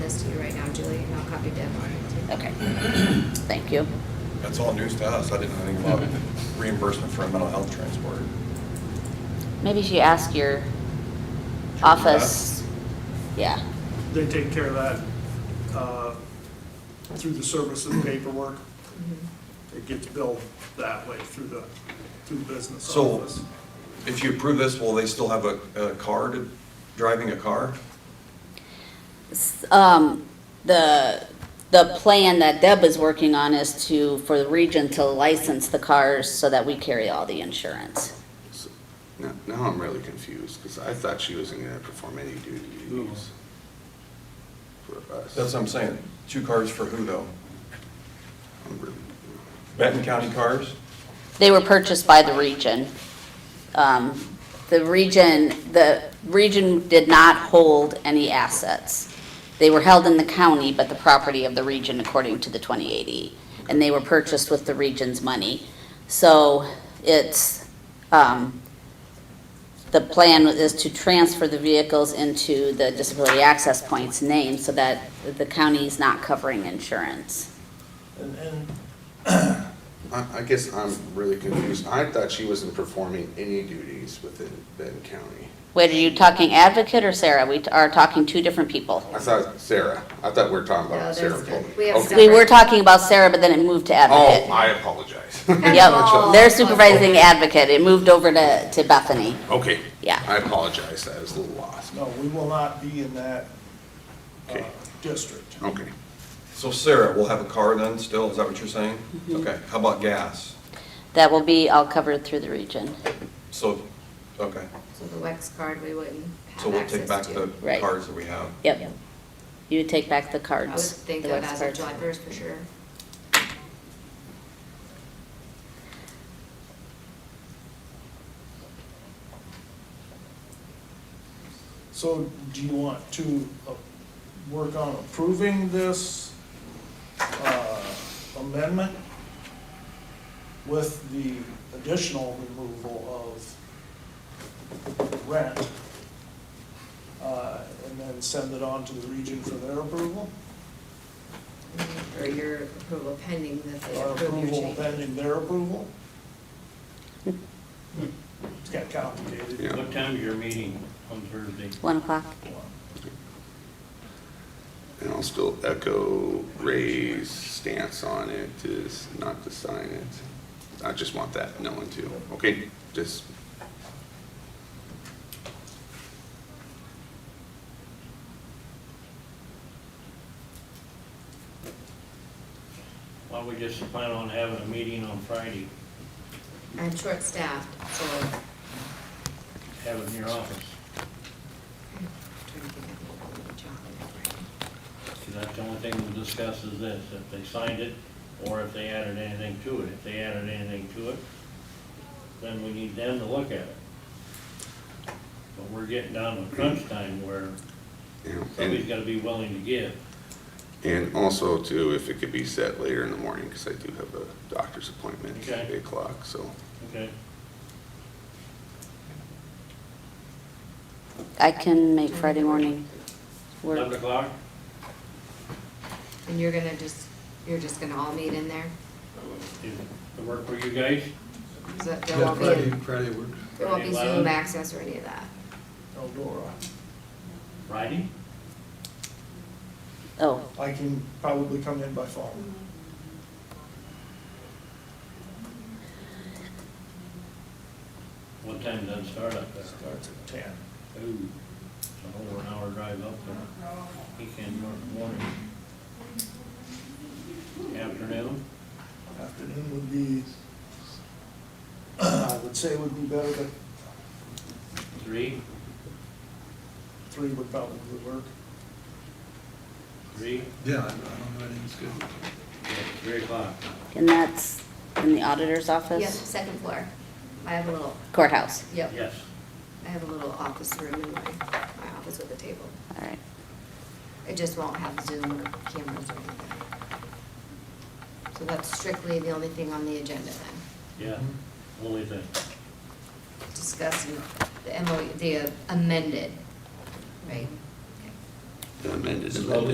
Julie, and I'll copy Deb on it too. Okay, thank you. That's all news to us. I didn't know anything about reimbursement for mental health transport. Maybe you should ask your office, yeah, They take care of that uh, through the service and paperwork. It gets billed that way through the, through the business So- office. If you approve this, will they still have a, a car, to- driving a car? um, the, the plan that Deb is working on is to, for the region to license the cars so that we carry all the insurance. So, Now, now I'm really confused, because I thought she wasn't gonna perform any duties for us. That's what I'm saying. Two cars for who though? I'm really- Benton County cars? They were purchased by the region. Um, The region, the region did not hold any assets. They were held in the county, but the property of the region according to the 2080. And they were purchased with the region's money. So it's, um, the plan is to transfer the vehicles into the disability access points name so that the county's not covering insurance. And, and I, I guess I'm really confused. I thought she wasn't performing any duties within Benton County. Wait, are you talking advocate or Sarah? We are talking two different people. I thought Sarah, I thought we were talking No, about that's Sarah good. Pullman. We have We Okay. were talking about Sarah, but then it moved to Oh, advocate. I apologize. Yep, they're supervising advocate. It moved over to, to Bethany. Okay. Yeah. I apologize, I was a little lost. No, we will not be in that uh, Okay. district. Okay. So Sarah will have a car then still? Is that what you're saying? Mm-hmm. Okay, how about gas? That will be all covered through the region. So, okay, So the Wex card, we wouldn't so have we'll take back access the to. Right. cars that we have. Yep. You would take back I the would cards. think the of wax as of cards. July first for sure. So do you want to uh, work on approving this uh, amendment with the additional removal of rent? uh, And then send it on to the region for their approval? Or your approval pending that they Or approve your approval change. pending their approval? It's got complicated. Yeah. What time is your meeting on Thursday? One o'clock. And I'll still echo Ray's stance on it, is not to sign it. I just want that known too, okay? Just, Why don't we just plan on having a meeting on Friday, I'm short-staffed, so I'm have it in your office? trying to think of the job and everything. See, that's the only thing we'll discuss is this, if they signed it or if they added anything to it. If they added anything to it, then we need them to look at it. But we're getting down to crunch time where you know, somebody's and, gotta be willing to give. and also too, if it could be set later in the morning, because I do have a doctor's appointment at Okay. eight o'clock, so. Okay, I can make Friday morning eleven work. o'clock? And you're gonna just, you're just gonna all meet in there? Is it work for you guys? Is that, there won't be, there won't be Friday, Zoom eleven? access or any of that? Eldora, Friday? Oh, I can probably come in by phone. What time does it start up there? Starts at ten. Ooh, it's an over an hour drive up there. He can go in the morning. Afternoon, Afternoon would be, I would say would be better, but three, three would probably work. three, Yeah, I don't know, I think it's good. yeah, three o'clock. and that's in the auditor's Yep, office? second floor. I have a little, Courthouse. yep, Yes, I have a little office room in my, my office with a table. All right. It just won't have Zoom or cameras or anything. So that's strictly the only thing on the agenda then. yeah, Mm-hmm. only thing. Discussing the MOU, the amended, right? Okay. Amended, Slowly.